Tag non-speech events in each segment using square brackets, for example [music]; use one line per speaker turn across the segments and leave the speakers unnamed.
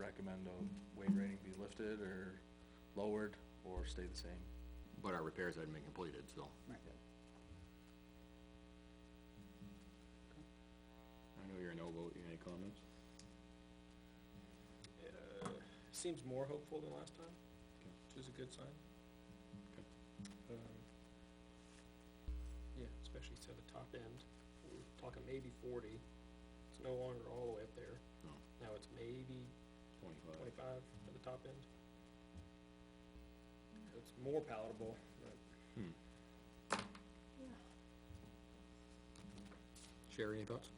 recommend a weight rating be lifted or lowered or stay the same.
But our repairs hadn't been completed, so.
Right.
I know you're a no vote, you have any comments?
Uh, Seems more hopeful than last time, which is a good sign. Um, Yeah, especially to the top end, we're talking maybe forty, it's no longer all the way up there,
No,
now it's maybe
twenty-five.
twenty-five at the top end. It's more palatable, but
Sherry, any thoughts?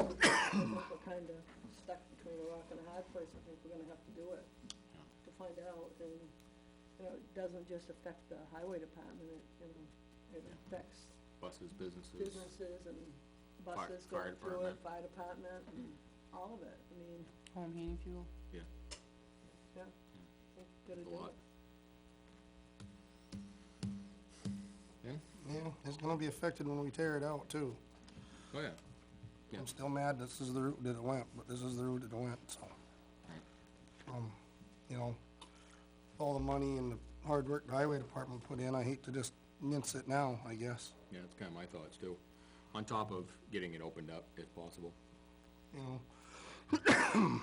We're kinda stuck between a rock and a hard place, I think we're gonna have to do it, to find out, and, you know, it doesn't just affect the highway department, it, you know, it
Yeah.
affects
Buses, businesses,
businesses and buses
fire
going through
department.
it, fire department, and all of it, I mean,
Home heating fuel.
yeah,
yeah, we've gotta
a
do
lot.
it.
Yeah, it's gonna be affected when we tear it out too.
Oh, yeah. Yeah.
I'm still mad this is the route that it went, but this is the route that it went, so. Um, you know, all the money and the hard work the highway department put in, I hate to just mince it now, I guess.
Yeah, that's kinda my thoughts too. On top of getting it opened up if possible.
You know,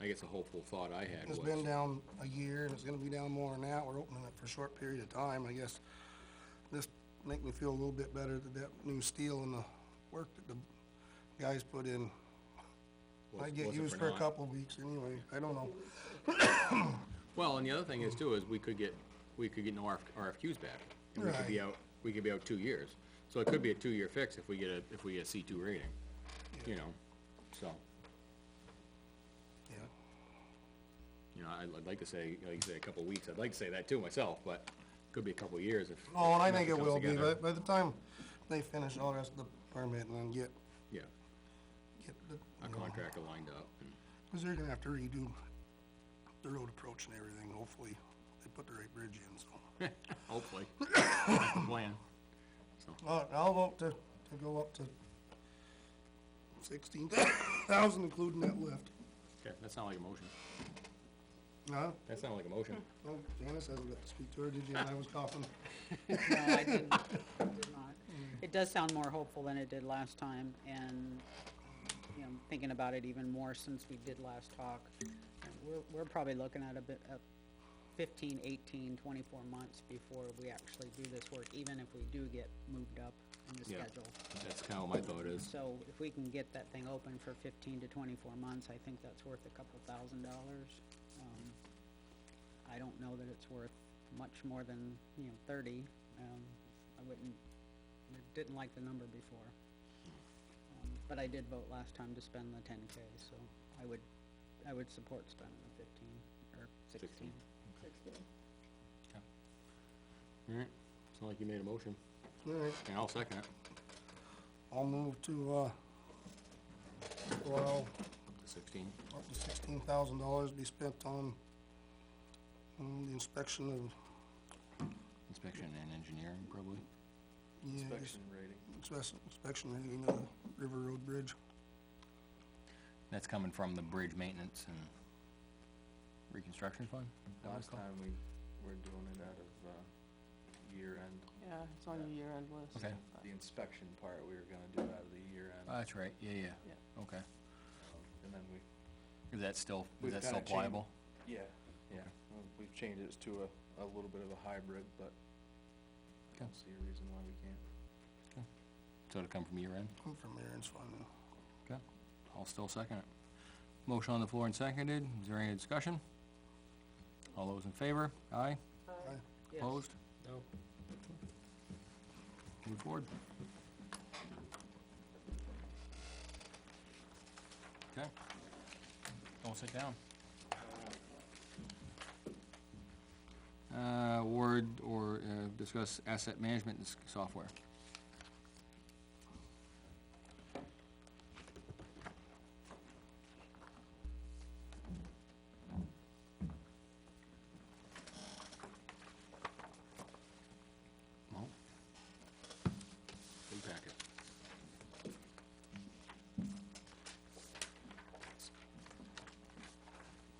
I guess a hopeful thought I had was.
it's been down a year and it's gonna be down more than that. We're opening it for a short period of time, I guess. This make me feel a little bit better that that new steel and the work that the guys put in.
was-
I get
was it
used for a
not?
couple weeks anyway, I don't know.
Well, and the other thing is too, is we could get, we could get no RF RFQs back. And we could be
Right.
out, we could be out two years. So it could be a two-year fix if we get a, if we get a C two rating, you know, so.
Yeah.
You know, I'd, I'd like to say, like you say, a couple of weeks, I'd like to say that too myself, but could be a couple of years if.
Oh, and I
if
think it
nothing
will
comes
be,
together.
but by the time they finish all the rest of the permit and then get,
Yeah,
get the.
a
you know,
contractor lined up, [laughs] and,
Cause they're gonna have to redo the road approach and everything, hopefully, they put the right bridge in, so.
hopefully, That's the plan.
Uh, I'll vote to, to go up to sixteen thousand, including that lift.
Okay, that sounded like a motion.
No,
That sounded like a motion.
no, Oh, Janice hasn't got to speak to her, did you, I was coughing.
No, I didn't, I did not. It does sound more hopeful than it did last time, and, you know, thinking about it even more since we did last talk. We're, we're probably looking at a bit, a fifteen, eighteen, twenty-four months before we actually do this work, even if we do get moved up in the
Yeah.
schedule.
That's kinda what my thought is.
So if we can get that thing open for fifteen to twenty-four months, I think that's worth a couple thousand dollars. Um, I don't know that it's worth much more than, you know, thirty, um, I wouldn't, I didn't like the number before. Um, But I did vote last time to spend the ten K, so I would, I would support spending the fifteen, or sixteen.
Sixteen.
Alright, it's not like you made a motion,
Alright,
and I'll second it.
I'll move to, uh, well,
Sixteen.
up to sixteen thousand dollars be spent on, on the inspection of,
Inspection and engineering, probably.
yeah,
Inspection rating.
inspection, inspection rating of the River Road Bridge.
That's coming from the bridge maintenance and reconstruction fund?
Last time we were doing it out of, uh, year-end,
Yeah, it's on your year-end list.
Okay.
but-
the inspection part, we were gonna do out of the year-end,
Oh, That's right, yeah,
Yeah.
okay.
and then we
Is that still,
We've that still kinda changed- pliable? Yeah, yeah, Well, we've changed it to a, a little bit of a hybrid, but I don't see a reason why we can't.
So to come from your end?
I'm from Aaron's Fund.
Okay, I'll still second it. Motion on the floor and seconded, is there any discussion? All those in favor, aye,
Yes.
opposed,
no,
move forward. Okay, don't sit down. Uh, word or, uh, discuss asset management s- software.